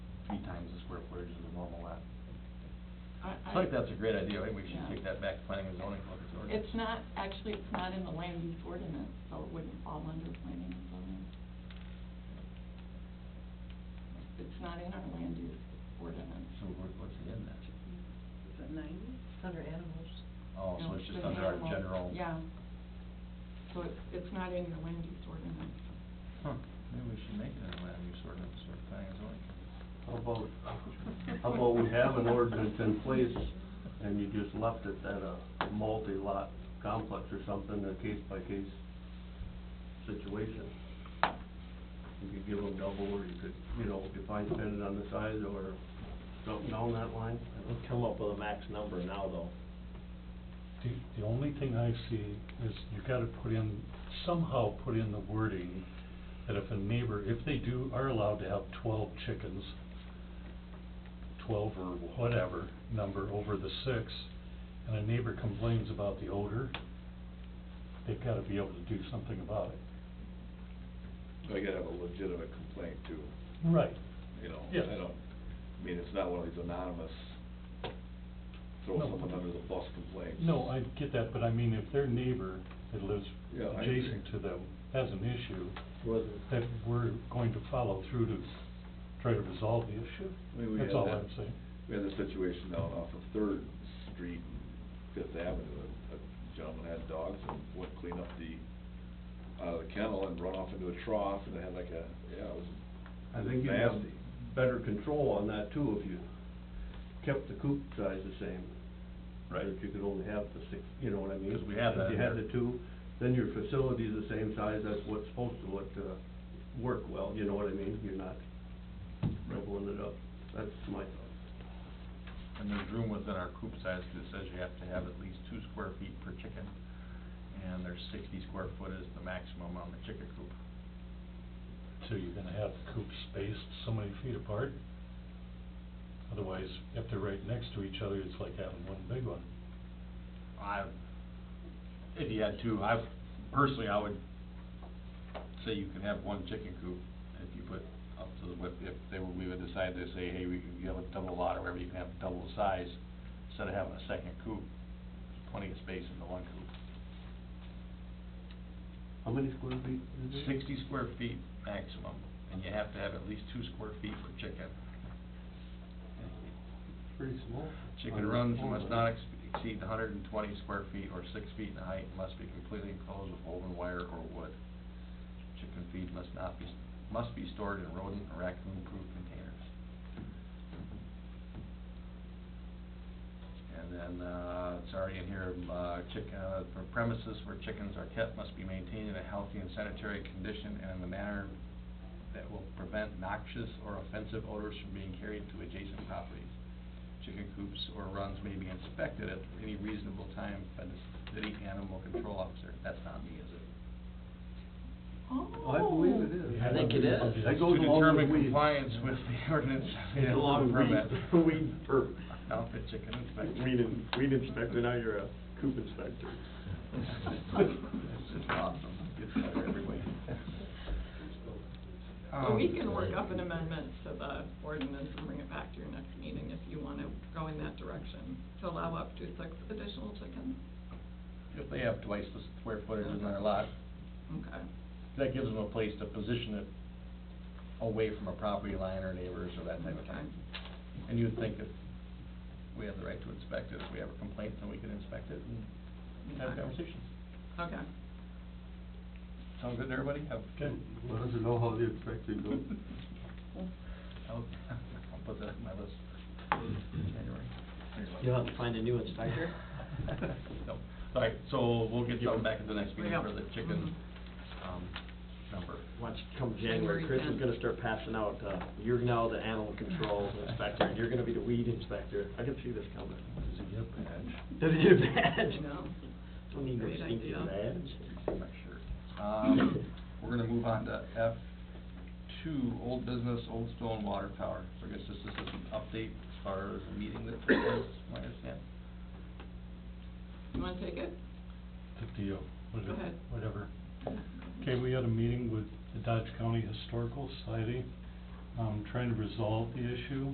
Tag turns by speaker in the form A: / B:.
A: three times the square footage of the normal lot.
B: I-
A: I think that's a great idea, I think we
B: Yeah.
A: should take that back to planning and zoning, look at the ordinance.
B: It's not, actually, it's not in the land use ordinance, so it wouldn't fall under planning and zoning. It's not in our land use ordinance.
A: So what- what's it in then?
C: Is it ninety? It's under animals.
A: Oh, so
B: No,
A: it's just
B: an
A: under our
B: animal-
A: general.
B: Yeah. So it's, it's not in your land use ordinance.
A: Huh, maybe we should make it a land use ordinance or planning and zoning.
D: How about, how about we have an ordinance in place and you just left it at a multi-lot complex or something, a case-by-case situation? You could give them double, or you could, you know, define depending on the size, or something down that line.
E: We'll come up with a max number now, though.
F: The, the only thing I see is you gotta put in, somehow put in the wording that if a neighbor, if they do, are allowed to have twelve chickens, twelve or whatever number over the six, and a neighbor complains about the odor, they've gotta be able to do something about it.
G: They gotta have a legitimate complaint too,
F: Right.
G: you know?
F: Yes.
G: I don't, I mean, it's not one of these anonymous, throw
F: No.
G: someone under the bus complaints.
F: No, I get that, but I mean, if their neighbor that lives
G: Yeah, I agree.
F: adjacent to them has an issue,
E: Wasn't.
F: that we're going to follow through to try to resolve the
G: I mean, we
F: issue.
G: had
F: That's all
G: that-
F: I'm saying.
G: We had the situation down off of Third Street and Fifth Avenue, a a gentleman had dogs and went clean up the, out of the kennel and run off into a trough and it had like a, yeah, it was
D: I think you'd have
G: Nasty.
D: better control on that too, if you kept the coop size the same. If you could only have the six, you know what I mean?
A: 'Cause we have that
D: If
A: in
D: you had
A: there.
D: the two, then your facility's the same size, that's what's supposed to look, uh, work well, you know what I mean? You're not doubling it up. That's my thought.
A: And there's room within our coop size, 'cause it says you have to have at least two square feet per chicken, and there's sixty square foot is the maximum on the chicken coop.
F: So you're gonna have coops spaced so many feet apart? Otherwise, if they're right next to each other, it's like having one big one.
A: I, if you had two, I, personally, I would say you can have one chicken coop if you put up to the, if, if they were, we would decide to say, hey, we, can- you have a double lot or whatever, you can have double the size, instead of having a second coop, there's plenty of space in the one coop.
D: How many square feet is it?
A: Sixty square feet maximum, and you have to have at least two square feet per chicken.
D: Pretty small.
A: Chicken runs must not ex- exceed hundred and twenty square feet or six feet in height, and must be completely enclosed with woven wire or wood. Chicken feed must not be, must be stored in rodent or raccoon-proof containers. And then, uh, it's already in here, uh, chicken, uh, for premises where chickens are kept must be maintained in a healthy and sanitary condition and in a manner that will prevent noxious or offensive odors from being carried to adjacent properties. Chicken coops or runs may be inspected at any reasonable time by the city animal control officer. That's not me, is it?
B: Oh.
D: I believe it is.
F: I think it is.
D: That goes along with
A: To determine
D: weed.
A: compliance with the ordinance of the
D: It's along
A: animal
D: with
A: permit.
D: weed, weed per.
A: Outfit chicken inspector.
E: Weed in, weed inspector, now you're a coop inspector.
A: This is awesome. Gets better every week.
B: Oh. So we
A: Um,
B: can work up an amendment to the ordinance and bring it back to your next meeting if you want to go in that direction, to allow up to six additional chickens.
A: If they have twice the square footage in their lot,
B: Okay.
A: that gives them a place to position it away from a property line or neighbors or that type of thing. And you would think if we have the right to inspect it, if we have a complaint, then we can inspect it and have a conversation.
B: Okay.
A: Sound good to everybody? Have,
F: Okay.
D: Let us know how the inspector goes.
A: I'll, I'll put that on my list, January.
E: You'll have to find a new inspector?
A: No, all right, so we'll get something back at the next meeting
B: Yeah.
A: for the chicken, um, number.
E: Watch, come January,
B: January
E: Chris is
B: tenth.
E: gonna start passing out, uh, you're now the animal control inspector, and you're gonna be the weed inspector. I can see this coming.
F: Does it get bad?
E: Does it get bad?
B: No.
E: Don't need no
B: Great
E: stinky
B: idea.
E: badge.
A: I'm not sure. Um, we're gonna move on to F two, old business, Old Stone Water Tower. So I guess this is just an update as far as a meeting that took place, my understanding.
B: You want to take it?
F: The
D: oh,
F: deal,
B: Go
F: whatever,
B: ahead.
F: whatever. Okay, we had a meeting with the Dodge County Historical Society,
D: um, trying to resolve the issue.